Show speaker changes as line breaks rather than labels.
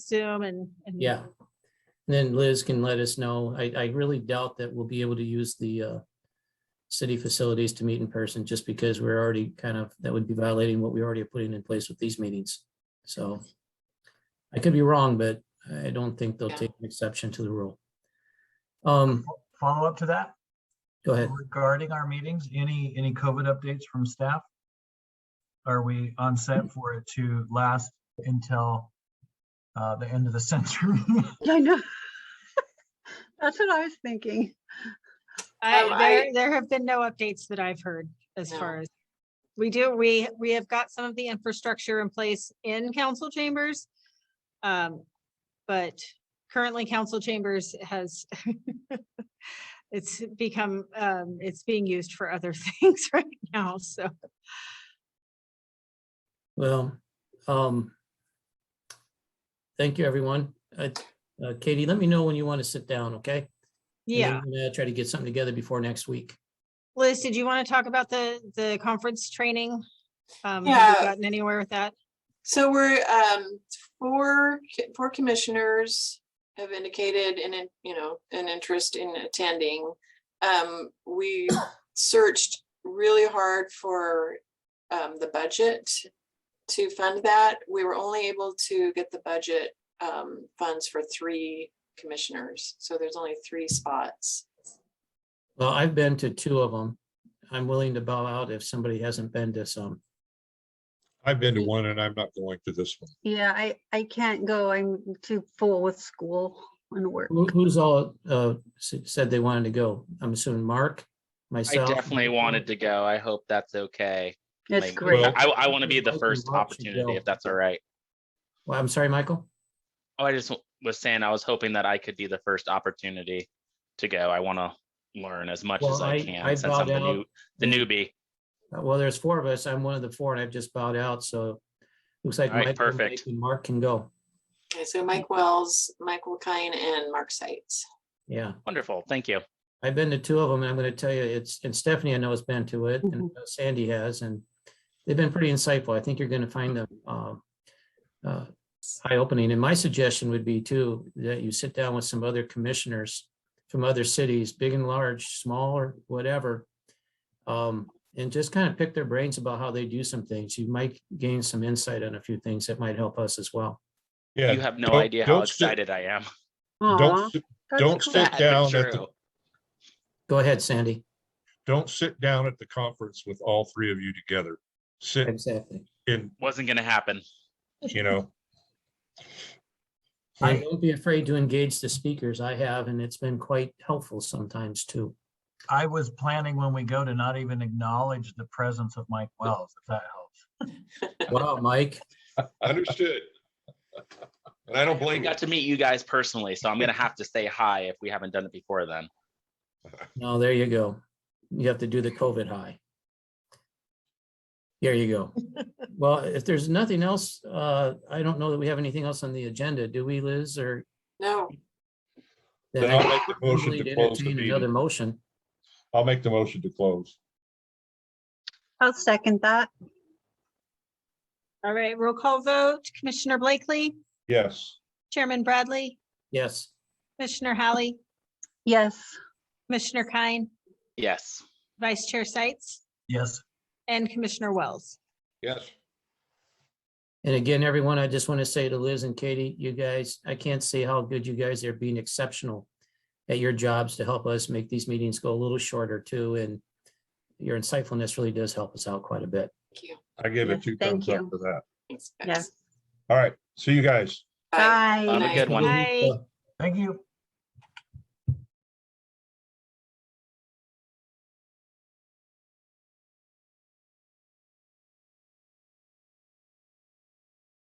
Zoom and. and-
Yeah. And Then Liz can let us know. I, I really doubt that we'll be able to use the uh, city facilities to meet in person just because we're already kind of, that would be violating what we already are putting in place with these meetings. So I could be wrong, but I don't think they'll
Yeah.
take an exception to the rule. Um,
Follow up to that
go ahead.
regarding our meetings, any, any COVID updates from staff? Are we on set for it to last until uh, the end of the century?
I know. That's what I was thinking.
I,
Um,
there,
I-
there have been no updates that I've heard as
No.
far as. We do, we, we have got some of the infrastructure in place in council chambers. Um, but currently council chambers has. It's become, um, it's being used for other things right now, so.
Well, um, thank you, everyone. Uh, uh, Katie, let me know when you want to sit down, okay? And then
Yeah,
we're gonna Try to get something together before next week.
Liz, did you want to talk about the, the conference training? Um, have
Yeah.
you gotten anywhere with that?
So we're, um, four, co- four commissioners have indicated an, in- you know, an interest in attending. Um, we searched really hard for, um, the budget to fund that. We were only able to get the budget, um, funds for three commissioners. So there's only three spots.
Well, I've been to two of them. I'm willing to bow out if somebody hasn't been to some.
I've been to one and I'm not going to this one.
Yeah, I, I can't go. I'm too full with school and work.
Who- Who's all uh, s- said they wanted to go? I'm assuming Mark,
I
myself.
definitely wanted to go. I hope that's okay.
It's
Like,
great.
Well-
I, I want to be
Michael
the first
Rock should
opportunity
go.
if that's all right.
Well, I'm sorry, Michael.
Oh, I just w- was saying, I was hoping that I could be the first opportunity to go. I want to learn as much
Well,
as
I-
I can
I
since
bowed
I'm the
out.
new, the newbie.
Uh, Well, there's four of us. I'm one of the four and I've just bowed out, so looks like.
All right,
Michael, Mike,
perfect.
and Mark can go.
Okay, so Mike Wells, Michael Kine and Mark Seitz.
Yeah,
Wonderful. Thank you.
I've been to two of them and I'm going to tell you, it's, and Stephanie I know has been to it and Sandy has, and they've been pretty insightful. I think you're going to find them um, uh, eye-opening. And my suggestion would be too, that you sit down with some other commissioners from other cities, big and large, small or whatever. um, And just kind of pick their brains about how they do some things. You might gain some insight on a few things that might help us as well.
Yeah.
You have no
don't-
idea how
don't sit-
excited I am.
Aw,
Don't, sit-
that's
don't
cool.
sit
Sad, but
down at the-
true.
Go ahead, Sandy.
don't sit down at the conference with all three of you together. Sit
Exactly.
in,
Wasn't going to happen.
you know,
I don't be afraid to engage the speakers. I have, and it's been quite helpful sometimes too.
I was planning when we go to not even acknowledge the presence of Mike Wells, if that helps.
Wow, Mike.
Understood. And I don't
I
blame you.
got to meet you guys personally, so I'm going to have to say hi if we haven't done it before then.
No, there you go. You have to do the COVID high. There you go. Well, if there's nothing else, uh, I don't know that we have anything else on the agenda. Do we, Liz, or?
No,
then
Then
I
I'll make the motion
need
to
to
close the
entertain Another
meeting.
motion.
I'll make the motion to close.
I'll second that.
All right, roll call vote. Commissioner Blakely,
Yes.
Chairman Bradley,
Yes.
Commissioner Hallie,
Yes.
Commissioner Kine,
Yes.
Vice Chair Sights,
Yes.
and Commissioner Wells.
Yes.
And again, everyone, I just want to say to Liz and Katie, you guys, I can't say how good you guys are being exceptional at your jobs to help us make these meetings go a little shorter too. And your insightfulness really does help us out quite a bit.
thank you.
I give it
Yes,
two
thank
thumbs up
you.
for that.
Thanks,
Yes.
guys.
All right. See you guys.
Bye.
Bye.
Have a
Bye.
good one.
Bye.
Thank you.